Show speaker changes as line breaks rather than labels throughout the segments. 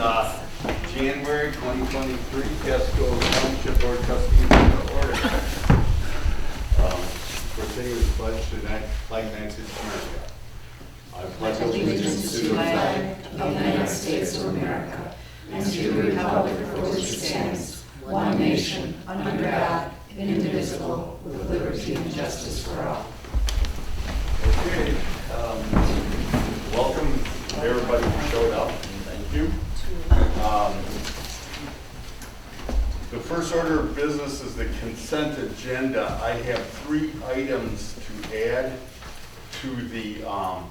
uh, January 2023 Casco Township Board of Trustees to order. Um, For today's pledge to that flag Nancy America. I pledge
allegiance to the flag of the United States of America and to the republic for which it stands, one nation, under God, indivisible, with liberty and justice for all.
Okay, um, welcome everybody who showed up, thank you. Um, The first order of business is the consent agenda. I have three items to add to the, um,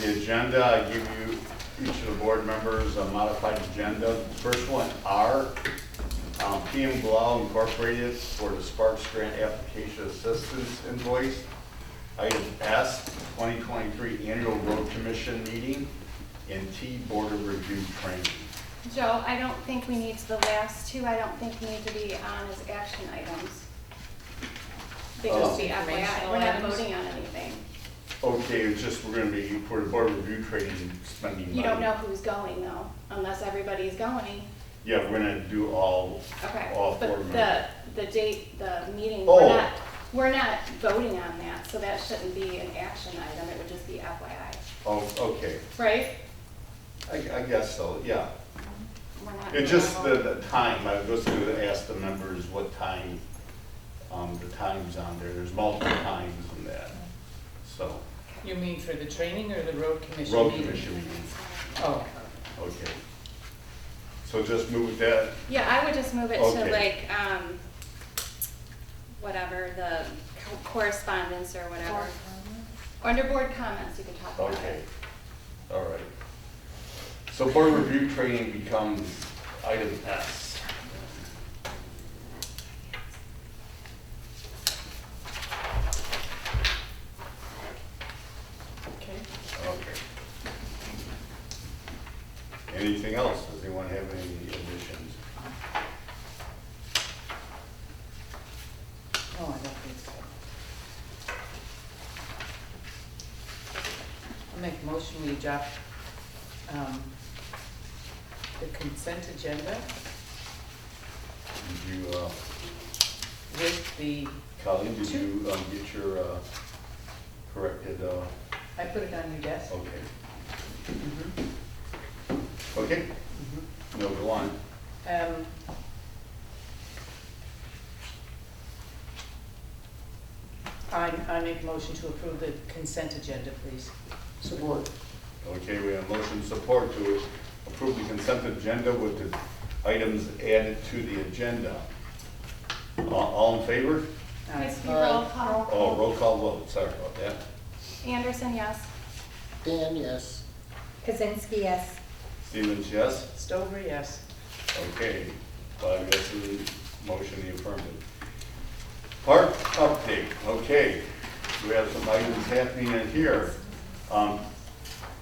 the agenda. I give you, each of the board members, a modified agenda. First one, R, um, PM Blau Incorporated for the Sparks Grant Application Assistance invoice. Item S, 2023 Annual Road Commission Meeting, and T, Board of Review Training.
Joe, I don't think we need, the last two, I don't think need to be on as action items. They just
Oh.
be FYI, we're not voting on anything.
Okay, it's just, we're gonna be, for the Board of Review Training, spending money.
You don't know who's going though, unless everybody's going,
Yeah, we're gonna do all,
okay?
all four
But
members.
the, the date, the meeting, we're
Oh.
not, we're not voting on that, so that shouldn't be an action item, it would just be FYI,
Oh, okay,
right?
I, I guess so, yeah.
We're not.
It's just the,
voting.
the time, I was gonna ask the members what time, um, the time's on there, there's multiple times in that, so.
You mean for the training or the road commission
Road
meeting?
Commission meeting,
Oh,
okay. So just move that
Yeah, I would just move it to
Okay.
like, um, whatever, the co- correspondence or whatever. Under board comments, you can talk about
Okay,
it.
all right. So board review training becomes item S.
okay.
Okay. Anything else? Does anyone have any additions?
Oh, I don't think so. I'll make a motion, we adopt, um, the consent agenda
Did you, uh,
with the,
Colleen, did you um, get your uh, corrected, uh,
I put it on your desk.
okay.
Mhm,
Okay,
mhm.
no, go on.
Um, I, I make a motion to approve the consent agenda, please. Support.
Okay, we have motion support to approve the consent agenda with the items added to the agenda. A- All in favor?
Miss
Uh,
B, roll call.
Oh, roll call vote, sorry about that.
Anderson, yes.
Dan, yes.
Kazinsky, yes.
Stevens, yes?
Stover, yes.
Okay, five yeses, motion in the affirmative. Park update, okay, we have some items happening in here. Um,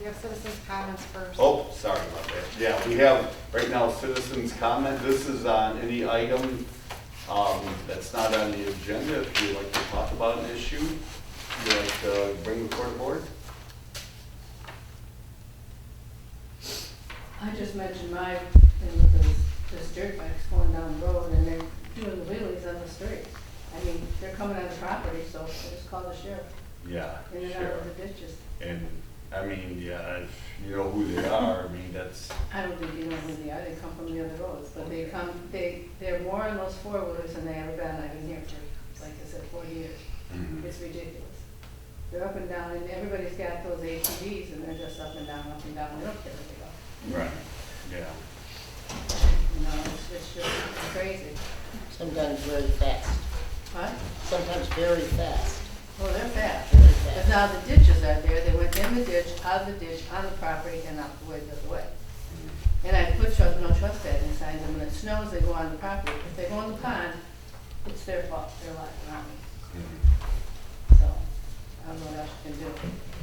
You have citizens' comments first.
Oh, sorry about that. Yeah, we have right now citizens' comment. This is on any item um, that's not on the agenda. If you'd like to talk about an issue, you'd like to bring before the board?
I just mentioned my thing with those, those dirt bikes going down the road and they're doing the wheelies on the street. I mean, they're coming on the property, so I just call the sheriff
Yeah,
in and out
sure.
of the ditches.
And, I mean, yeah, if you know who they are, I mean, that's,
I don't think you know who they are, they come from the other roads, but they come, they, they're more on those four wheelers than they ever been, I've been here for, like I said, forty years.
Mhm.
It's ridiculous. They're up and down and everybody's got those ATVs and they're just up and down, up and down, they don't care where they go.
right, yeah.
You know, it's, it's just crazy.
Sometimes very fast.
What?
Sometimes very fast.
Well, Oh, they're fast.
Very
But
fast.
now the ditches are there, they went in the ditch, out of the ditch, on the property, and out the way the other way.
Mm-hmm.
And I put trust, no trespassing signs, and when it snows, they go on the property, if they go on the pond, it's their fault, their lot, not me,
Mhm.
so, I don't know what else you can do.